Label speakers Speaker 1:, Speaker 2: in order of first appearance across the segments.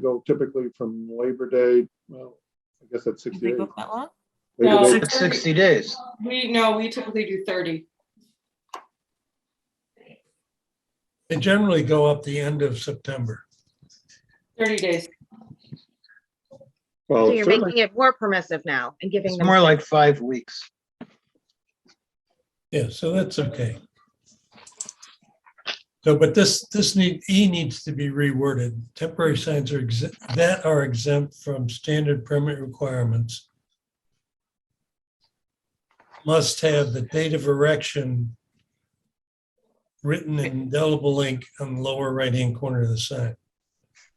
Speaker 1: go typically from Labor Day, well, I guess that's
Speaker 2: Do
Speaker 1: sixty
Speaker 2: they
Speaker 1: days.
Speaker 2: book that long?
Speaker 1: Labor Day-
Speaker 3: Six- 60 days.
Speaker 4: We, no, we typically do thirty.
Speaker 5: They generally go up the end of September.
Speaker 4: 30 days.
Speaker 1: Well,
Speaker 6: So you're
Speaker 1: certainly,
Speaker 6: making it more permissive now and giving
Speaker 3: It's
Speaker 6: them.
Speaker 3: more like five weeks.
Speaker 5: Yeah, so that's okay. So, but this, this need, E needs to be reworded. Temporary signs are exempt, that are exempt from standard permit requirements. Must have the date of erection written in indelible ink on the lower right-hand corner of the sign.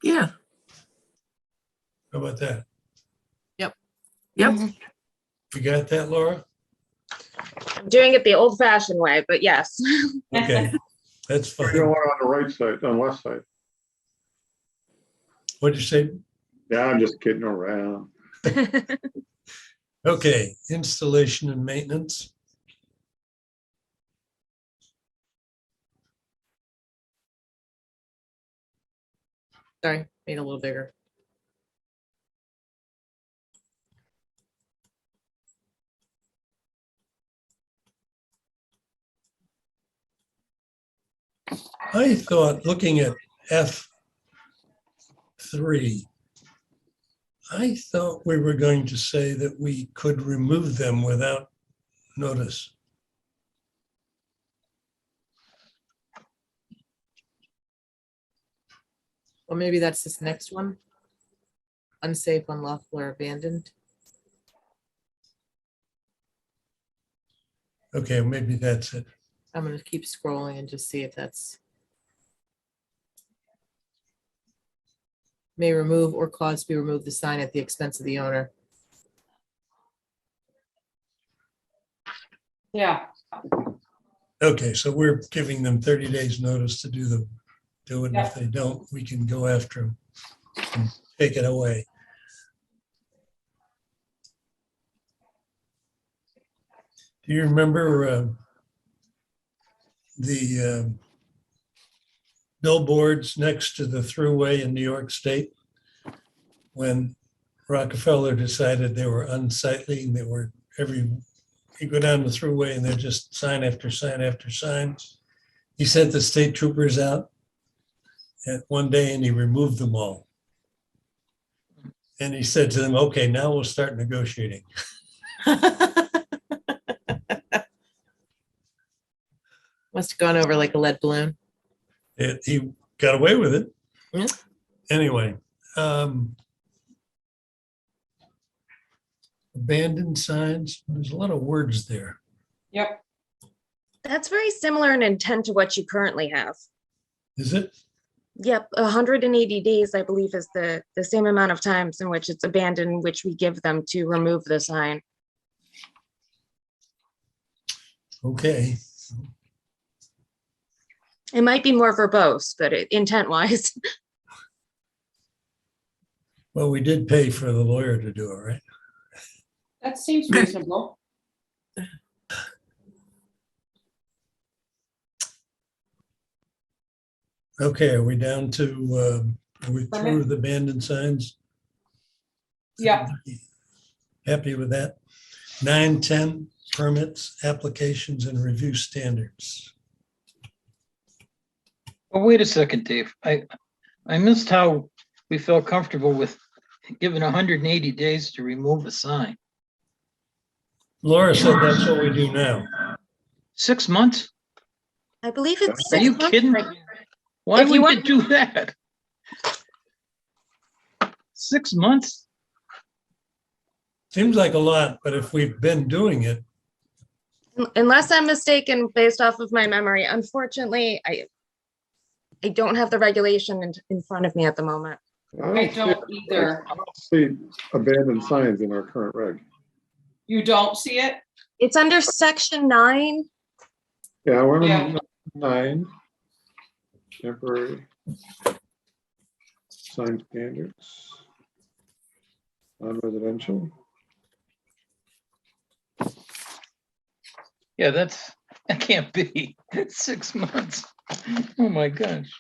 Speaker 7: Yeah,
Speaker 5: How about that?
Speaker 7: yep. Mm-hmm.
Speaker 5: You got that, Laura?
Speaker 6: I'm doing it the old fashioned way, but yes.
Speaker 5: Okay, that's
Speaker 1: you
Speaker 5: fine.
Speaker 1: don't want it on the right side, on the west side.
Speaker 5: What'd you say?
Speaker 1: Yeah, I'm just kidding around.
Speaker 5: Okay, installation and maintenance.
Speaker 7: Sorry, made it a little bigger.
Speaker 5: I thought, looking at F three, I thought we were going to say that we could remove them without notice.
Speaker 7: Well, maybe that's this next one. Unsafe, unlawful, or abandoned.
Speaker 5: Okay, maybe that's it.
Speaker 7: I'm gonna keep scrolling and just see if that's. May remove or cause to be removed the sign at the expense of the owner.
Speaker 4: Yeah,
Speaker 5: Okay, so we're giving them thirty days notice to do the, do it. and
Speaker 4: Yeah.
Speaker 5: If they don't, we can go after them. and Take it away. Do you remember uh, the um, billboards next to the thruway in New York State? When Rockefeller decided they were unsightly, and they were every you go down the thruway and they're just sign after sign after sign. He sent the state troopers out at one day and he removed them all. And he said to them, okay, now we'll start negotiating.
Speaker 7: Must have gone over like a lead balloon.
Speaker 5: It, he got away with it.
Speaker 7: Yeah.
Speaker 5: Anyway, um, abandoned signs, there's a lot of words there.
Speaker 4: yep.
Speaker 6: That's very similar in intent to what you currently have.
Speaker 5: Is it?
Speaker 6: Yep, hundred and eighty days, I believe, is the, the same amount of times in which it's abandoned, which we give them to remove the sign.
Speaker 5: Okay.
Speaker 6: It might be more verbose, but it- intent wise,
Speaker 5: Well, we did pay for the lawyer to do it, right?
Speaker 4: That seems reasonable.
Speaker 5: Okay, are we down to, um, are we through the abandoned signs?
Speaker 4: Yeah,
Speaker 5: Happy with that? Nine, ten permits, applications and review standards.
Speaker 3: Well, Oh, wait a second, Dave. I, I missed how we felt comfortable with giving hundred and eighty days to remove a sign.
Speaker 5: Laura said that's what we do now.
Speaker 3: Six months?
Speaker 6: I believe it's.
Speaker 3: Are
Speaker 6: six
Speaker 3: you
Speaker 6: months
Speaker 3: kidding?
Speaker 6: right-
Speaker 3: me? Why
Speaker 6: If you
Speaker 3: would you do
Speaker 6: want-
Speaker 3: that? Six months?
Speaker 5: Seems like a lot, but if we've been doing it,
Speaker 6: Unless I'm mistaken, based off of my memory, unfortunately, I, I don't have the regulation in, in front of me at the moment.
Speaker 4: I
Speaker 1: I
Speaker 4: don't
Speaker 1: don't see-
Speaker 4: either.
Speaker 1: I don't see abandoned signs in our current reg.
Speaker 4: You don't see it?
Speaker 6: It's under section nine.
Speaker 1: Yeah, we're
Speaker 4: Yeah.
Speaker 1: on nine. Temporary. Sign standards. Non-residential.
Speaker 3: Yeah, that's, that can't be. It's six months. Oh, my gosh.